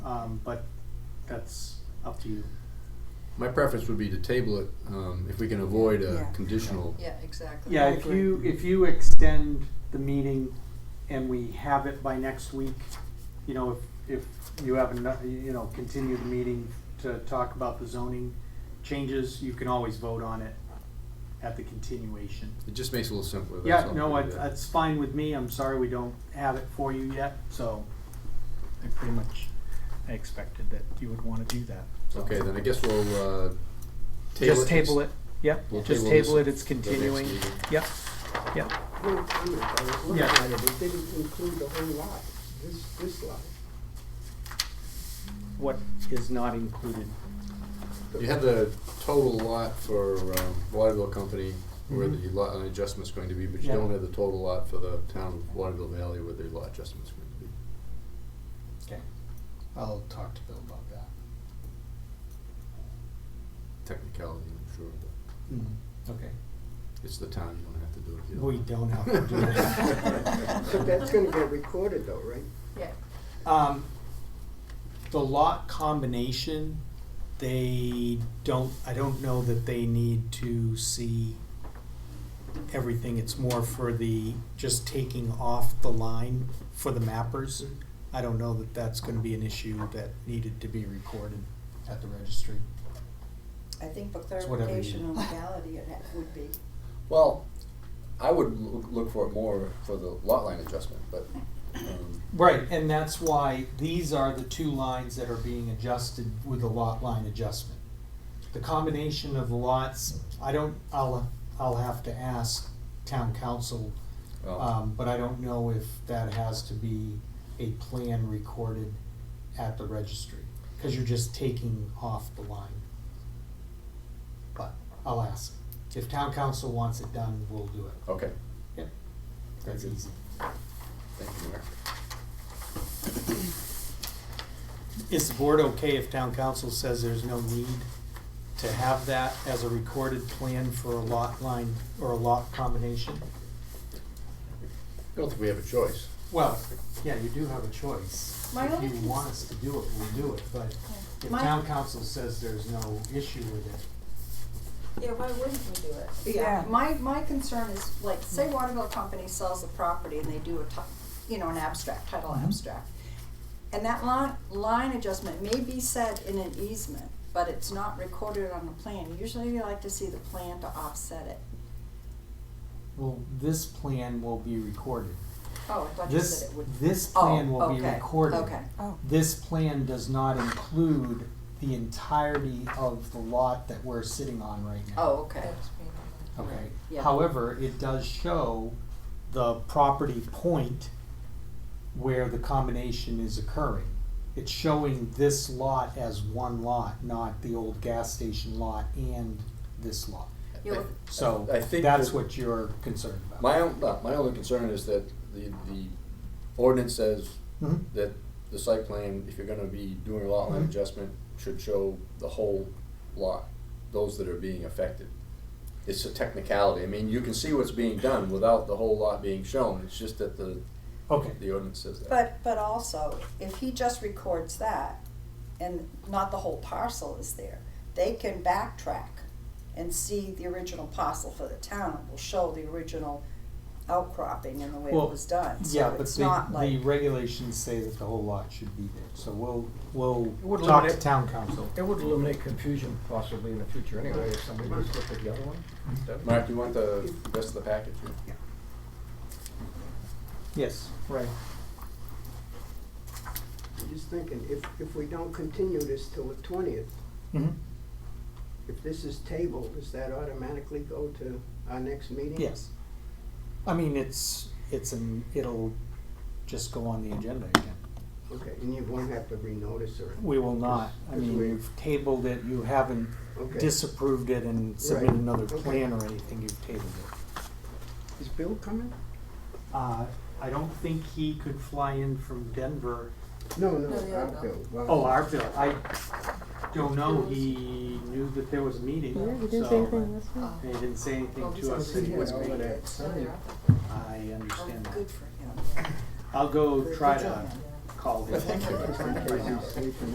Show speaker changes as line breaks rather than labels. um, but that's up to you.
My preference would be to table it, um, if we can avoid a
Yeah.
conditional.
Yeah, exactly.
Yeah,
I
if
agree.
you, if you extend the meeting and we have it by next week, you know, if, if you have enough, you know, continue the meeting to talk about the zoning changes, you can always vote on it at the continuation.
It just makes it a little simpler, that's
Yeah,
all.
no, it- it's fine with me, I'm sorry we don't have it for you yet, so
I pretty much, I expected that you would wanna do that.
Okay, then I guess we'll, uh, table it.
Just table it, yep,
We'll
just
table this
table it, it's
for the next
continuing,
meeting.
yep, yep.
Well, I mean, I was looking
Yeah.
at it, it didn't include the whole lot, this, this lot.
what is not included?
You have the total lot for, um, Waterville Company, where the lot line adjustment's going to be, but you
Yeah.
don't have the total lot for the town of Waterville Valley where the lot adjustment's going to be.
Okay.
I'll talk to Bill about that.
Technicality, I'm sure, but
Mm-hmm.
Okay.
it's the town, you don't have to do it. if you
We
want.
don't have to do that.
So that's gonna get recorded though, right?
Yeah,
Um, the lot combination, they don't, I don't know that they need to see everything. It's more for the, just taking off the line for the mappers. I don't know that that's gonna be an issue that needed to be recorded at the registry.
I think for
It's whatever you-
clarification and legality, it ha- would be.
Well, I would loo- look for it more for the lot line adjustment, but, um,
Right, and that's why these are the two lines that are being adjusted with the lot line adjustment. The combination of the lots, I don't, I'll, I'll have to ask town council,
well,
um, but I don't know if that has to be a plan recorded at the registry, cause you're just taking off the line. But I'll ask. If town council wants it done, we'll do it.
okay,
Yep. That's easy.
thank you, Mayor.
Is the board okay if town council says there's no need to have that as a recorded plan for a lot line or a lot combination?
I don't think we have a choice.
Well, yeah, you do have a choice.
My
If
only
you
cons-
want us to do it, we'll do it, but if
My-
town council says there's no issue with it,
Yeah, why wouldn't we do it?
Yeah.
My, my concern is, like, say Waterville Company sells the property and they do a ti- you know, an abstract, title
Mm-hmm.
abstract. And that line, line adjustment may be said in an easement, but it's not recorded on the plan. Usually you like to see the plan to offset it.
well, this plan will be recorded.
Oh, I thought you
This,
said it would.
this
Oh,
plan will be
okay,
recorded.
Okay,
Oh,
This plan does not include the entirety of the lot that we're sitting on right now.
oh, okay,
Okay.
Yeah.
However, it does show the property point where the combination is occurring. It's showing this lot as one lot, not the old gas station lot and this lot.
You know,
So
I think
that's
that-
what you're concerned about.
My own, no, my only concern is that the, the ordinance says
Mhm.
that the site plan, if you're gonna be doing a lot line
Mhm.
Mm-hmm.
adjustment, should show the whole lot, those that are being affected. It's a technicality, I mean, you can see what's being done without the whole lot being shown, it's just that the,
Okay.
the ordinance says that.
But, but also, if he just records that and not the whole parcel is there, they can backtrack and see the original parcel for the town. It will show the original outcropping and the way it
Well,
was done.
Yeah,
So
but
it's not
the, the
like,
regulations say that the whole lot should be there, so we'll, we'll
would
talk to
eliminate-
town council.
It would eliminate confusion possibly in the future anyway, if somebody just looked at the other one.
Mark, you want the rest of the package?
Yes, right.
I'm just thinking, if, if we don't continue this till the twentieth,
Mhm.
if this is tabled, does that automatically go to our next meeting?
Yes. I mean, it's, it's an, it'll just go on the agenda again.
Okay, and you won't have to renotice or,
We will not, I
Because
mean,
we-
you've tabled it, you haven't
okay.
disapproved it and submitted
Right,
another
okay.
plan or anything, you've tabled it.
Is Bill coming?
Uh, I don't think he could fly in from Denver
No, no,
No, yeah,
not
no.
Bill. Well,
Oh, our bill, I don't know, he knew that there was a meeting, so. And he didn't say
Oh,
anything to us,
he
and he was
had all of
being,
that time.
I understand that.
Oh, good for him.
I'll go
Good-
try
good
to
job.
call him.
Thank you.
In case he's sleeping.